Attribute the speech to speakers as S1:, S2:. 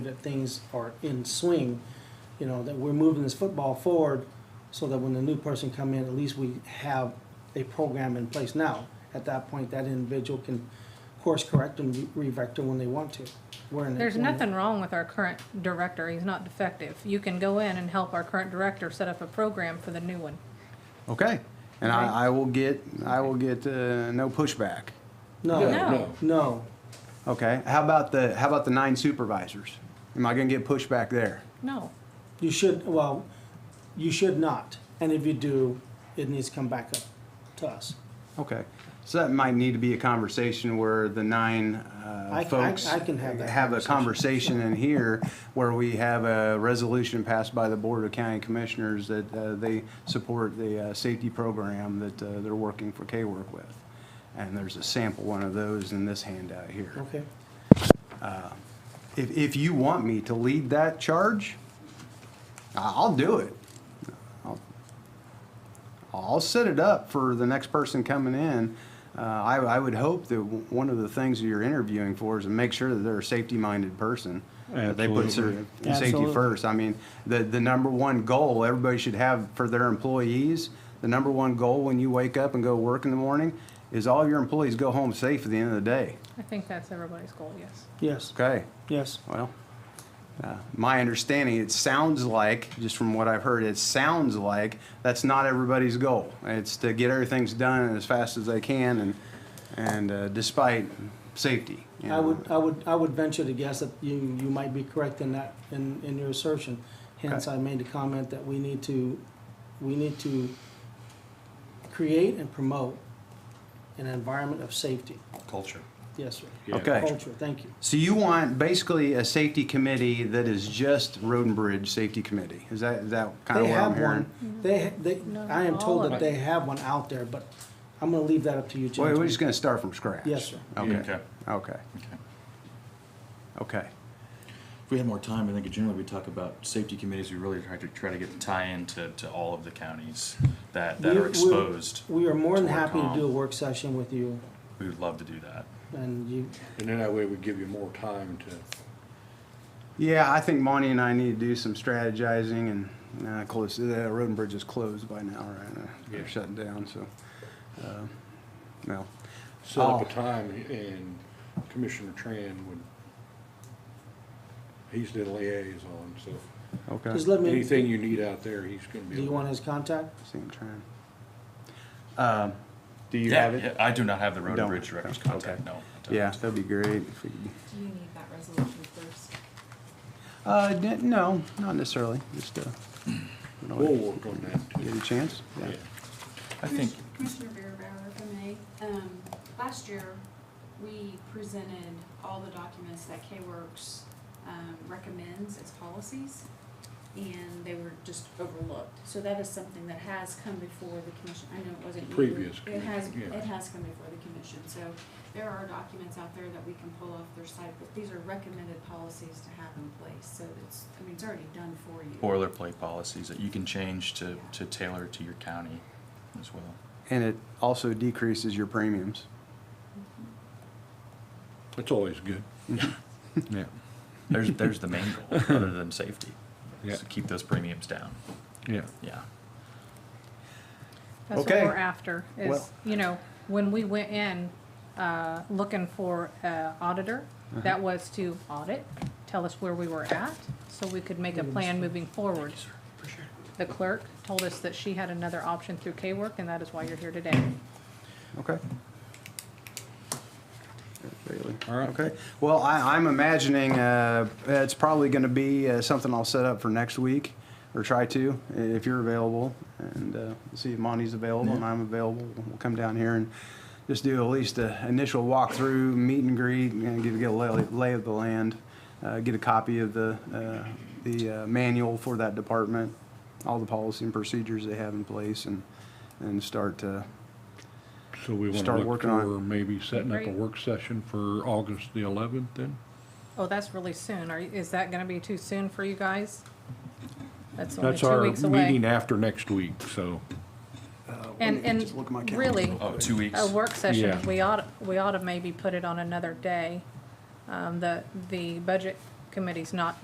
S1: that things are in swing, you know, that we're moving this football forward so that when the new person come in, at least we have a program in place now. At that point, that individual can course correct and re- re-vector when they want to. We're in a-
S2: There's nothing wrong with our current director, he's not defective. You can go in and help our current director set up a program for the new one.
S3: Okay. And I, I will get, I will get, uh, no pushback.
S1: No,
S2: No.
S1: no.
S3: Okay. How about the, how about the nine supervisors? Am I gonna get pushback there?
S2: No,
S1: You should, well, you should not. And if you do, it needs to come back up to us.
S3: Okay. So that might need to be a conversation where the nine,
S1: I
S3: uh,
S1: can- I-
S3: folks.
S1: I can have that
S3: Have a conversation in here where we have a resolution passed by the Board of County Commissioners that, uh, they support the, uh, safety program that, uh, they're working for K-Work with. And there's a sample one of those in this handout here.
S1: Okay?
S3: If, if you want me to lead that charge, I- I'll do it. I'll- I'll set it up for the next person coming in. Uh, I, I would hope that w- one of the things that you're interviewing for is to make sure that they're a safety-minded person. that They put
S4: Absolutely.
S3: their safety
S1: Absolutely.
S3: first. I mean, the, the number one goal everybody should have for their employees, the number one goal when you wake up and go work in the morning is all your employees go home safe at the end of the day.
S2: I think that's everybody's goal, yes.
S1: Yes,
S3: Okay?
S1: yes.
S3: Well, uh, my understanding, it sounds like, just from what I've heard, it sounds like that's not everybody's goal. It's to get everything's done as fast as they can and, and uh, despite safety. you
S1: I
S3: know.
S1: would, I would, I would venture to guess that you, you might be correct in that, in, in your assertion. Hence, I made the comment that we need to, we need to create and promote an environment of safety.
S5: Culture.
S1: Yes, sir.
S5: Yeah.
S3: Okay.
S1: Culture, thank you.
S3: So you want basically a safety committee that is just Road and Bridge Safety Committee? Is that, is that kind
S1: They
S3: of what I'm
S1: have
S3: hearing?
S1: one, they, ha- they,
S2: No,
S1: I am
S2: Mm-hmm. all
S1: told
S2: of
S1: that
S2: it.
S1: they have one out there, but I'm gonna leave that up to you,
S3: Wait,
S1: gentlemen.
S3: we're just gonna start from scratch?
S1: Yes, sir.
S3: Okay,
S5: Okay.
S3: okay,
S5: Okay.
S3: okay.
S5: If we had more time, I think generally we talk about safety committees, we really try to, try to get the tie-in to, to all of the counties that, that
S1: We-
S5: are
S1: we-
S5: exposed.
S1: We are more than
S5: to
S1: happy to
S5: WorkCom.
S1: do a work session with you,
S5: We would love to do that.
S1: and you,
S4: And then that way we give you more time to,
S3: Yeah, I think Monty and I need to do some strategizing and, uh, close, the road and bridge is closed by now, right? Uh, They're
S4: Yeah.
S3: shutting down, so, uh, well.
S4: set up
S3: Oh.
S4: a time and Commissioner Tran would, he's the liaison, so
S3: Okay.
S1: just let me, do
S4: anything you need out there, he's gonna be.
S1: you want his contact?
S3: Same trend. Um, do you
S5: Yeah,
S3: have
S5: yeah,
S3: it?
S5: I do not have the road
S3: Don't.
S5: and bridge director's
S3: Okay.
S5: contact, no. I don't.
S3: Yeah, that'd be great. if we could-
S6: Do you need that resolution first?
S3: Uh, d- no, not necessarily, just, uh, we don't
S4: We'll work on that
S3: get
S4: too.
S3: a chance, yeah.
S4: Yeah.
S5: I think,
S6: Commissioner Beerbauer, if I may, um, last year, we presented all the documents that K-Works, um, recommends as policies, and they were just overlooked. So that is something that has come before the commission, I know it wasn't you.
S4: Previous
S6: It has,
S4: commission, yeah.
S6: it has come before the commission, so there are documents out there that we can pull off their site, but these are recommended policies to have in place, so it's, I mean, it's already done for you.
S5: boilerplate policies that you can change to, to tailor to your county as well.
S3: And it also decreases your premiums.
S4: That's always good.
S5: Yeah. There's, there's the main goal, other than safety.
S4: Yeah.
S5: is to keep those premiums down,
S4: Yeah.
S5: yeah.
S2: That's what
S3: Okay.
S2: we're after,
S3: Well-
S2: is, you know, when we went in, uh, looking for a auditor,
S3: Uh-huh.
S2: that was to audit, tell us where we were at, so we could make a
S3: Mm-hmm.
S2: plan moving forward. The clerk told us that she had another option through K-Work, and that is why you're here today.
S3: Okay. Bailey.
S4: All right.
S3: Okay. Well, I, I'm imagining uh, it's probably going to be uh, something I'll set up for next week or try to if you're available and uh, see if Monty's available and I'm available. We'll come down here and just do at least an initial walkthrough, meet and greet, and get, get a lay, lay of the land, uh, get a copy of the, uh, the uh, manual for that department, all the policy and procedures they have in place, and, and start uh,
S4: So we
S3: Start
S4: wanna look
S3: working on it.
S4: for maybe setting up a
S2: Great.
S4: work session for August the eleventh then?
S2: Oh, that's really soon. Are, is that gonna be too soon for you guys? That's only
S4: That's
S2: two
S4: our
S2: weeks away.
S4: meeting after next week, so.
S2: And, and
S3: Just look at my calendar.
S2: really,
S5: Oh, two weeks.
S2: a work session,
S4: Yeah.
S2: we ought, we ought to maybe put it on another day. Um, the, the budget committees, not